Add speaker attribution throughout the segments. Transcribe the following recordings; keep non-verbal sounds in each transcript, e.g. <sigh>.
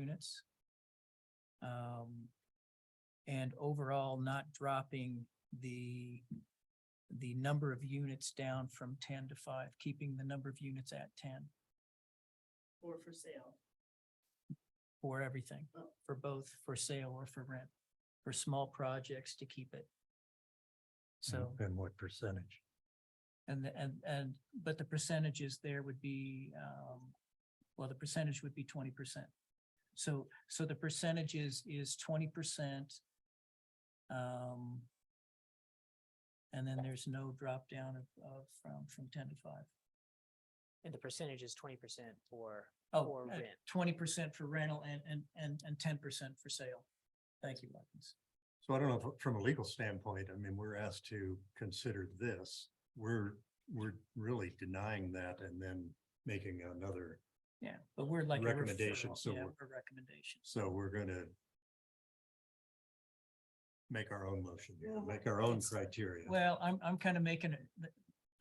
Speaker 1: units. Um, and overall not dropping the, the number of units down from ten to five, keeping the number of units at ten
Speaker 2: or for sale.
Speaker 1: for everything,
Speaker 2: Oh.
Speaker 1: for both for sale or for rent, for small projects to keep it. So.
Speaker 3: And what percentage?
Speaker 1: And, the- and, and, but the percentages there would be, um, well, the percentage would be twenty percent. So, so the percentage is, is twenty percent. Um, and then there's no drop down of, of, from, from ten to five.
Speaker 4: And the percentage is twenty percent for,
Speaker 1: Oh,
Speaker 4: for rent.
Speaker 1: twenty percent for rental and, and, and, and ten percent for sale. Thank you, Watkins.
Speaker 3: So I don't know, if- from a legal standpoint, I mean, we're asked to consider this. We're, we're really denying that and then making another.
Speaker 1: Yeah, but we're like. a
Speaker 3: Recommendation,
Speaker 1: referral.
Speaker 3: so
Speaker 1: Yeah,
Speaker 3: we're-
Speaker 1: we're recommendations.
Speaker 3: So we're gonna make our own motion, here,
Speaker 2: Well,
Speaker 3: make our own
Speaker 1: it's-
Speaker 3: criteria.
Speaker 1: Well, I'm, I'm kind of making it,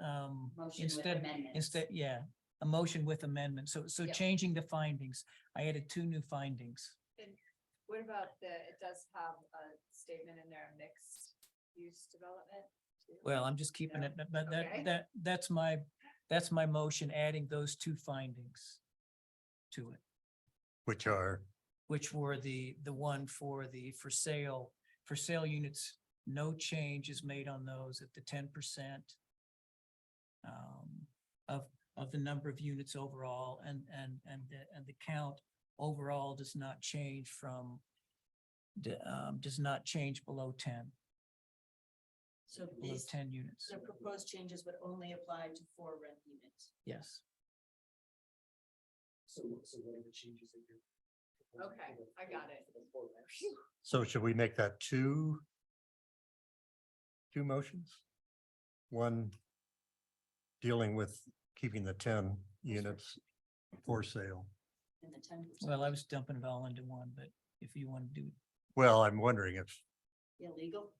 Speaker 1: um,
Speaker 2: Motion with
Speaker 1: instead,
Speaker 2: amendments.
Speaker 1: Instead, yeah, a motion with amendment. So, so
Speaker 5: Yep.
Speaker 1: changing the findings. I added two new findings.
Speaker 5: What about the, it does have a statement in there, mixed use development? too?
Speaker 1: Well, I'm just keeping
Speaker 5: Yeah.
Speaker 1: it, but- but
Speaker 5: Okay.
Speaker 1: that, that, that's my, that's my motion, adding those two findings to it,
Speaker 3: Which are,
Speaker 1: which were the, the one for the, for sale, for sale units, no change is made on those at the ten percent um, of, of the number of units overall and, and, and, the- and the count overall does not change from d- um, does not change below ten,
Speaker 2: So
Speaker 1: below
Speaker 2: these,
Speaker 1: ten units.
Speaker 2: the proposed changes would only apply to four rent units.
Speaker 1: Yes.
Speaker 6: So, so what are the changes that you're? proposing
Speaker 5: Okay,
Speaker 6: for the-
Speaker 5: I got it.
Speaker 6: for the four reps?
Speaker 5: Phew.
Speaker 3: so should we make that two? Two motions? One dealing with keeping the ten units for sale.
Speaker 2: And the ten percent
Speaker 1: Well, I was dumping it all into one, but if you want to do,
Speaker 3: Well, I'm wondering if,
Speaker 2: illegal.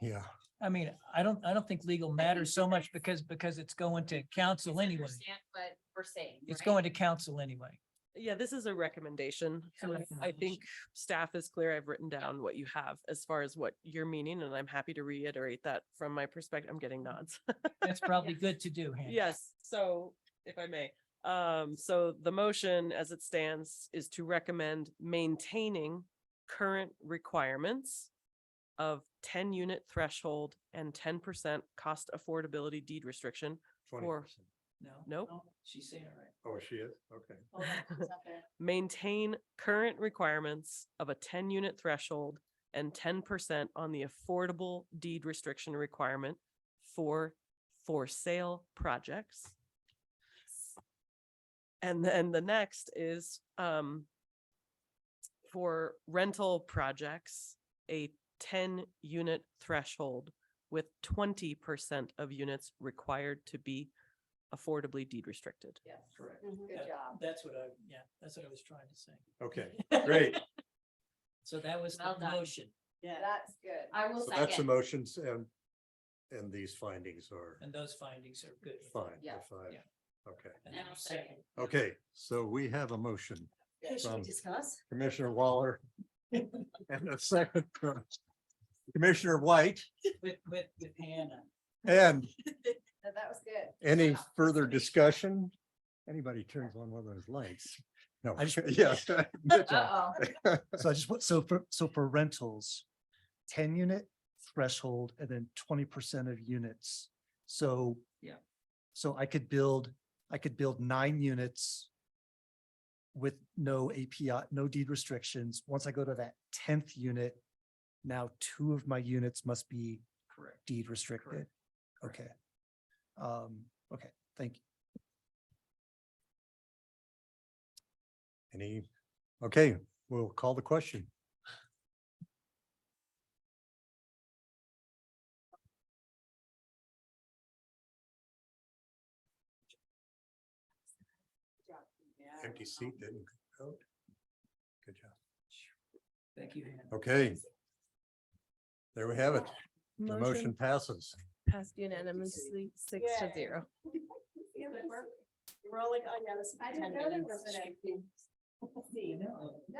Speaker 3: yeah.
Speaker 1: I mean, I don't, I don't think legal matters so much because, because it's going to council anyway.
Speaker 5: Understand What we're saying.
Speaker 1: It's
Speaker 5: right?
Speaker 1: going to council anyway.
Speaker 7: Yeah, this is a recommendation.
Speaker 1: Yeah,
Speaker 7: So I- I
Speaker 1: recommendation.
Speaker 7: think staff is clear. I've written down what you have as far as what you're meaning, and I'm happy to reiterate that from my perspective. I'm getting nods. <laughs>
Speaker 1: That's probably good to do, Hannah.
Speaker 7: Yes, so if I may, um, so the motion as it stands is to recommend maintaining current requirements of ten unit threshold and ten percent cost affordability deed restriction,
Speaker 3: 20%.
Speaker 1: No.
Speaker 7: Nope.
Speaker 1: no, She's saying it right.
Speaker 3: Oh, she is? Okay.
Speaker 2: Hold on, it's not there.
Speaker 7: maintain current requirements of a ten unit threshold and ten percent on the affordable deed restriction requirement for for sale projects. And then the next is um for rental projects, a ten unit threshold with twenty percent of units required to be affordably deed restricted.
Speaker 5: Yes,
Speaker 1: Correct.
Speaker 5: good job.
Speaker 1: That's what I, yeah, that's what I was trying to say. <laughs>
Speaker 3: Okay, great.
Speaker 1: So that was the
Speaker 5: Well done.
Speaker 1: motion
Speaker 2: Yeah.
Speaker 5: That's good. I will
Speaker 3: So that's the
Speaker 5: second.
Speaker 3: motions and, and these findings are
Speaker 1: and those findings are good.
Speaker 3: fine, the
Speaker 5: Yeah.
Speaker 3: five.
Speaker 1: Yeah.
Speaker 3: Okay,
Speaker 1: And
Speaker 2: Now
Speaker 1: then
Speaker 2: second.
Speaker 3: okay, so we have a motion,
Speaker 2: Okay, Should we
Speaker 3: Um,
Speaker 2: discuss?
Speaker 3: Commissioner Waller. And a second from Commissioner White,
Speaker 1: With, with, with Hannah.
Speaker 3: and
Speaker 5: No, That was good.
Speaker 3: any
Speaker 5: Yeah.
Speaker 3: further discussion? Anybody turns on one of those lights? No,
Speaker 6: I just-
Speaker 3: <laughs> yes. Mitchell.
Speaker 5: Uh-oh.
Speaker 6: So I just, want so for, so for rentals, ten unit threshold and then twenty percent of units. So.
Speaker 1: Yeah.
Speaker 6: So I could build, I could build nine units with no API, no deed restrictions. Once I go to that tenth unit, now two of my units must be
Speaker 1: Correct.
Speaker 6: deed restricted. Okay. Um, okay, thank you.
Speaker 3: Any, okay, we'll call the question. Empty seat didn't go. Good job.
Speaker 1: Thank you, Hannah.
Speaker 3: Okay. There we have it. The motion passes.
Speaker 8: passed unanimously, six to
Speaker 5: Yay.
Speaker 8: zero.
Speaker 5: Yeah, but we're-
Speaker 2: We're all like, oh yeah, this.
Speaker 5: <laughs> I didn't know there was an empty seat.
Speaker 1: No.